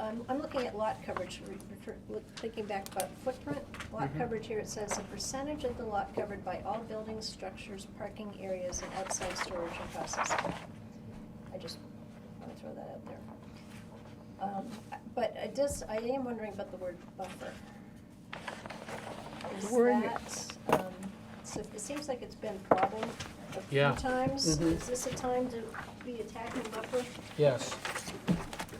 Um, I'm looking at lot coverage, re- refer- look- thinking back about footprint, lot Mhm. coverage here, it says the percentage of the lot covered by all buildings, structures, parking areas, and outside storage and processing. I just wanna throw that out there. Um, I- But I just, I am wondering about the word buffer. Is We're in- that, um, so it seems like it's been a problem a few Yeah. times. Mhm. Is this a time to be attacking buffer? Yes.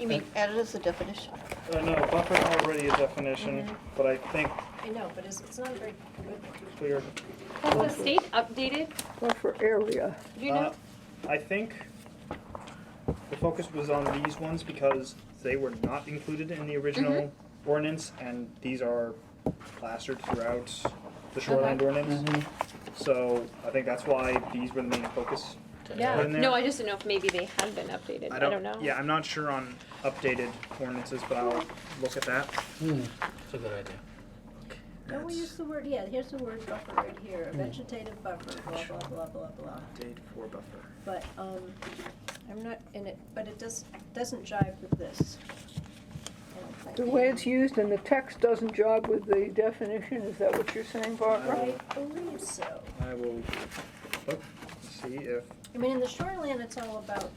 You mean added as a definition? Uh, no, buffer already a definition, Mm-hmm. Mhm. but I think I know, but it's, it's not a very good one. clear. Has the state updated, Buffer area. do you know? uh, I think the focus was on these ones because they were not included in the original Mm-hmm. ordinance, and these are plastered throughout the shoreline ordinance. So I think that's why these were the main focus. Yeah. in there. No, I just don't know if maybe they have been updated, I don't know. Yeah, I'm not sure on updated ordinances, but I'll look at that. Hmm, it's a good idea. Don't we That's- use the word, yeah, here's the word buffer right here, vegetative buffer, blah, blah, blah, blah, blah. Update for buffer. But, um, I'm not in it, but it does, doesn't jive with this. I don't think. The way it's used in the text doesn't jive with the definition, is that what you're saying, Barbara? I believe so. I will look, see if I mean, in the shoreline, it's all about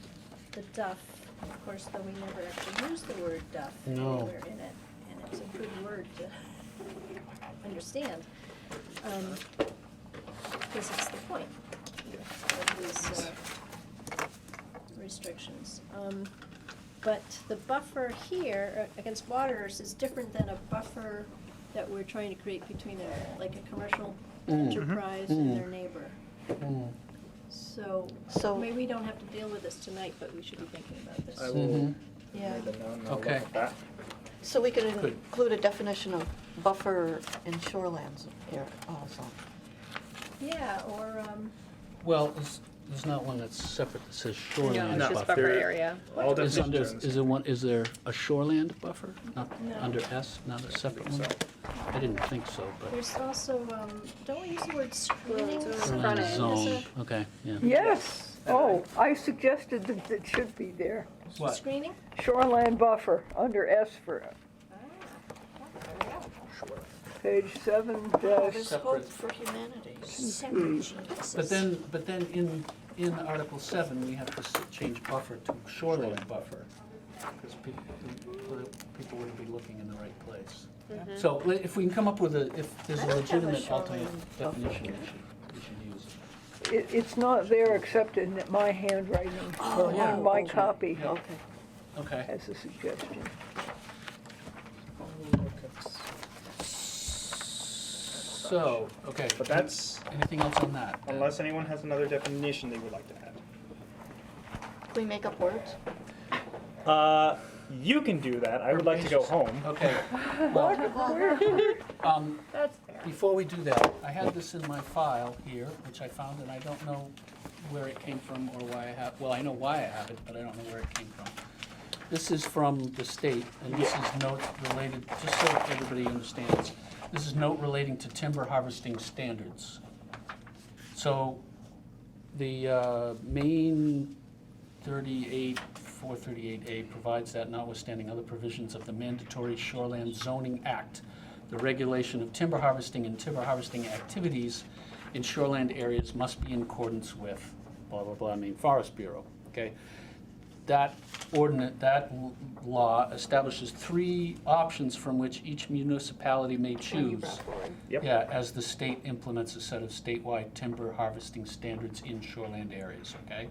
the duff, of course, though we never actually use the word duff No. anywhere in it. And it's a good word to understand, um, because it's the point of these, uh, restrictions. Um, but the buffer here uh, against waters is different than a buffer that we're trying to create between a, like a commercial Mhm. enterprise and Mm. their neighbor. Hmm. So, So- maybe we don't have to deal with this tonight, but we should be thinking about this. I will. Mhm. Yeah. read them now and I'll look Okay. at that. So we could Good. include a definition of buffer in shorelands here also. Yeah, or, um, Well, it's, it's not one that's separate that says shoreland No, it's buffer. just buffer area. All Is under, definitions. is there one, is there a shoreland buffer? Not, No. under S, not a separate one? I didn't think so, but. there's also, um, don't we use the word screening Well, it's sometimes shoreline Frontage. as Zone, okay, yeah. Yes, oh, I suggested that it should be there. a screening? Shoreland buffer, under S for page seven dash, Separate. for humanity. But then, but then in, in Article seven, we have to s- change buffer to shoreline buffer, because people wouldn't be looking in the right place. So li- if we can come up with a, if there's Mm-hmm. I a don't have a legitimate shoreline alternate buffer. definition, we should, we should use it. it, it's not there except in my handwriting, or yeah. in my Okay. copy, Yeah. Oh, okay, Okay. as a suggestion. So, okay. But that's, Anything else on that? unless anyone has another definition they would like to add. Can we make up words? Uh, you can do that. I would like to go home. Okay, well, um, That's there. before we do that, I had this in my file here, which I found, and I don't know where it came from or why I have, well, I know why I have it, but I don't know where it came from. This is from the state, and this is note related, just so everybody understands, this is note relating to timber harvesting standards. So, the uh, main 38, 438A provides that notwithstanding other provisions of the mandatory Shoreland Zoning Act, the regulation of timber harvesting and timber harvesting activities in shoreland areas must be in accordance with blah, blah, blah, I mean Forest Bureau, okay? That ordinance, that l- law establishes three options from which each municipality may choose. Yep. Yeah, as the state implements a set of statewide timber harvesting standards in shoreland areas, okay?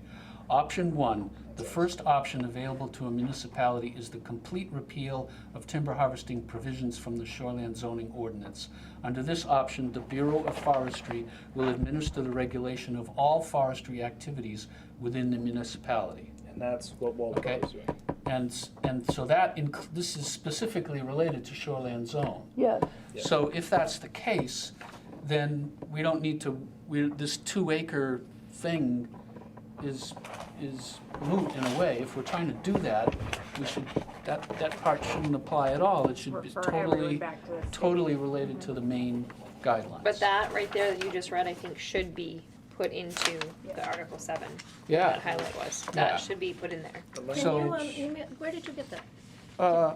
Option one, the first option available to a municipality is the complete repeal of timber harvesting provisions from the shoreland zoning ordinance. Under this option, the Bureau of Forestry will administer the regulation of all forestry activities within the municipality. And that's what Waldo Okay. was doing. And, s- and so that, inc- this is specifically related to shoreland zone. Yes, Yeah. So if that's the case, then we don't need to, we, this two acre thing is, is moot in a way. If we're trying to do that, we should, that, that part shouldn't apply at all. It should be Refer everyone totally, back to the state. totally related to the main guidelines. But that right there that you just read, I think should be put into the Article seven. Yeah. That highlight was, Yeah. that should be put in there. The Can So- you, um, email, where did you get that? Uh,